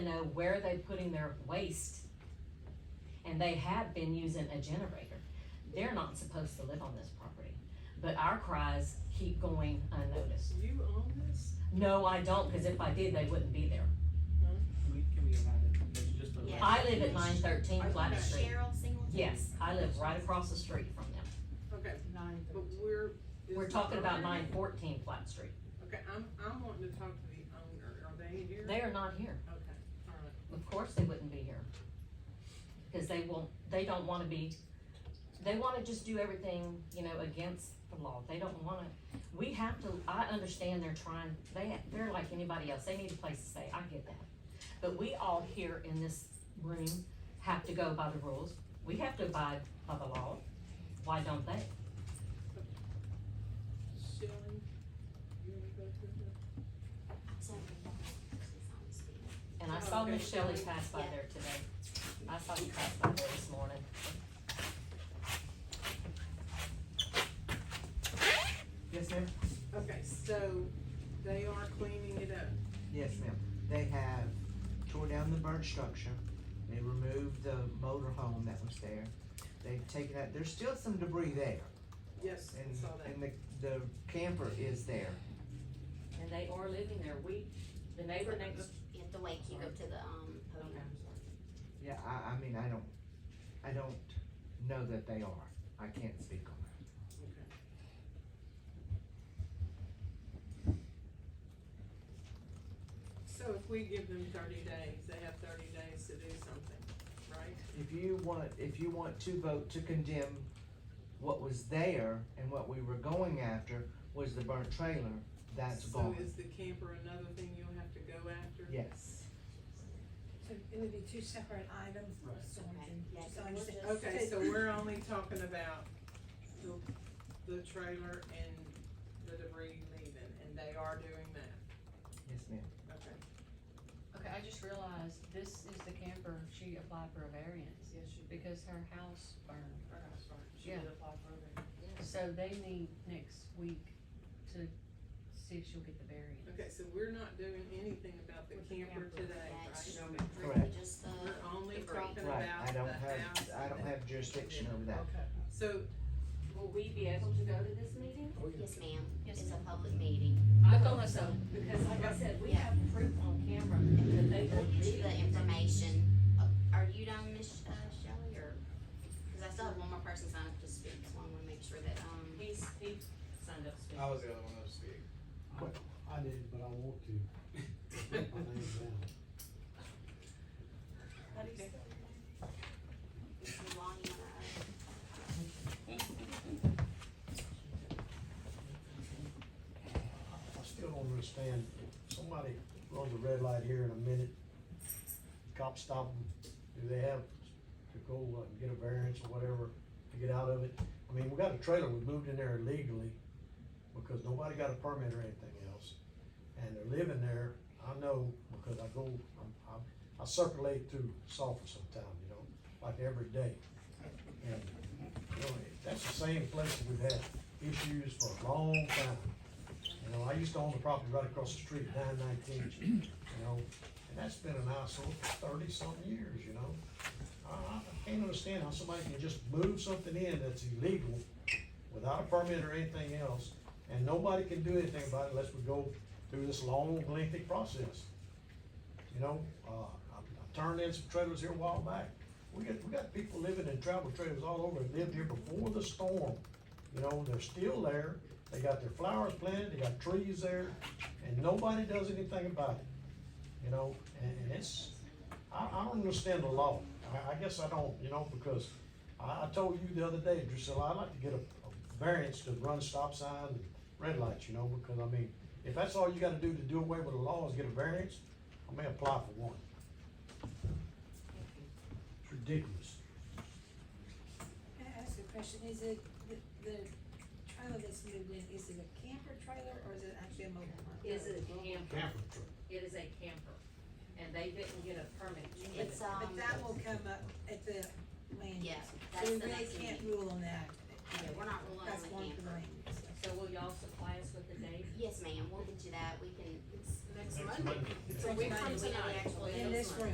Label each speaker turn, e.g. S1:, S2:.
S1: know, where are they putting their waste? And they have been using a generator. They're not supposed to live on this property, but our cries keep going unnoticed.
S2: You own this?
S1: No, I don't, cause if I did, they wouldn't be there.
S3: Can we, can we allow that? There's just a.
S4: Yeah.
S1: I live at nine thirteen
S4: Are you
S1: Flat
S4: gonna
S1: Street.
S4: Cheryl Singleton?
S1: Yes, I live right across the street from them.
S2: Okay,
S4: Nine
S2: but
S4: thirteen.
S2: we're. is
S1: We're
S2: the
S1: talking about
S2: owner-
S1: nine fourteen Flat Street.
S2: Okay, I'm, I'm wanting to talk to the owner, are they here?
S1: They are not here.
S2: Okay, alright,
S1: Of course they wouldn't be here. Cause they won't, they don't wanna be, they wanna just do everything, you know, against the law. They don't wanna, we have to, I understand they're trying, they, they're like anybody else. They need a place to stay. I get that. But we all here in this room have to go by the rules. We have to abide by the law. Why don't they?
S2: Shelley, you wanna go through this?
S1: And I saw Miss
S2: Okay.
S1: Shelley pass by there today. I saw you pass by there this morning.
S5: Yes, ma'am?
S2: Okay, so they are cleaning it up.
S5: Yes, ma'am. They have tore down the burnt structure. They removed the motor home that was there. They've taken out, there's still some debris there
S2: Yes, I
S5: and,
S2: saw that.
S5: and the, the camper is there.
S1: And they are living there. We, the neighbor next
S4: You have to wait, till you go to the, um, podium.
S5: Yeah, I, I mean, I don't, I don't know that they are. I can't speak on that.
S2: Okay. So if we give them thirty days, they have thirty days to do something, right?
S5: If you want, if you want to vote to condemn what was there and what we were going after was the burnt trailer, that's gone.
S2: So is the camper another thing you'll have to go after?
S5: Yes.
S6: So it would be two separate items,
S3: Right.
S6: so we can,
S4: Yeah,
S6: so I
S4: we're
S6: understand.
S4: just-
S2: Okay, so we're only talking about the, the trailer and the debris leaving, and they are doing that,
S5: Yes, ma'am.
S2: okay?
S7: Okay, I just realized this is the camper, she applied for a variance
S2: Yes, you,
S7: because her house burned.
S2: or, uh, I'm sorry, she
S7: Yeah.
S2: did apply for it.
S7: So they need next week to see if she'll get the variance.
S2: Okay, so we're not doing anything about the
S7: With the
S2: camper
S7: camper.
S2: today,
S4: That's
S2: right?
S4: really just the,
S2: We're only
S4: The break.
S2: talking
S5: Right,
S2: about
S5: I
S2: the
S5: don't have,
S2: house.
S5: I don't have jurisdiction over that.
S2: Okay, so,
S1: Will we be able to go to this meeting?
S4: yes ma'am,
S7: Yes,
S4: it's a public meeting.
S7: I thought so.
S1: Because like I said, we
S4: Yeah.
S1: have proof on camera that they
S4: We'll
S1: will
S4: get you
S1: be.
S4: the information. Uh, Are you done, Miss uh, Shelley, or? Cause I still have one more person signed up to speak, so I wanna make sure that, um,
S1: He's, he signed up to speak.
S8: I was the other one that was speaking.
S9: I did, but I want to. Put my name down.
S4: Mr. Long, you wanna, uh,
S9: I still don't understand, somebody runs a red light here in a minute, cops stop them, do they have to go uh, and get a variance or whatever to get out of it? I mean, we got a trailer, we moved in there illegally, because nobody got a permit or anything else, and they're living there, I know, because I go, I'm, I'm, I circulate through Sulphur sometime, you know, like every day. And, you know, that's the same place that we've had issues for a long time. You know, I used to own the property right across the street, nine nineteen, you know, and that's been an eyesore for thirty something years, you know? I, I can't understand how somebody can just move something in that's illegal without a permit or anything else, and nobody can do anything about it unless we go through this long lengthy process. You know, uh, I, I turned in some trailers here a while back. We got, we got people living in travel trailers all over, that lived here before the storm. You know, they're still there, they got their flowers planted, they got trees there, and nobody does anything about it. You know, and, and it's, I, I don't understand the law. I, I guess I don't, you know, because I, I told you the other day, Drusilla, I'd like to get a, a variance to run stop sign and red lights, you know, because I mean, if that's all you gotta do to do away with the law is get a variance, I may apply for one. It's ridiculous.
S6: Can I ask you a question, is it, the, the trailer that's moved in, is it a camper trailer or is it actually a mobile home?
S1: Is it a camper?
S9: Camper truck.
S1: It is a camper. And they didn't get a permit. to get
S4: it's,
S1: it.
S7: uh,
S4: um,
S6: But that will come up at the land.
S4: yeah,
S6: use.
S4: that's the
S6: So we really
S4: next
S6: can't
S4: meeting.
S6: rule on that.
S4: Yeah, we're not ruling on
S6: That's
S4: the
S6: one for
S4: camper.
S6: land use.
S1: So will y'all supply us with the date?
S4: Yes ma'am, we'll get you that, we can, it's,
S1: Next
S4: It's
S9: Next
S4: Monday.
S9: Monday.
S4: So we
S2: Next
S4: from
S2: Monday.
S4: tonight, actually.
S6: In this room.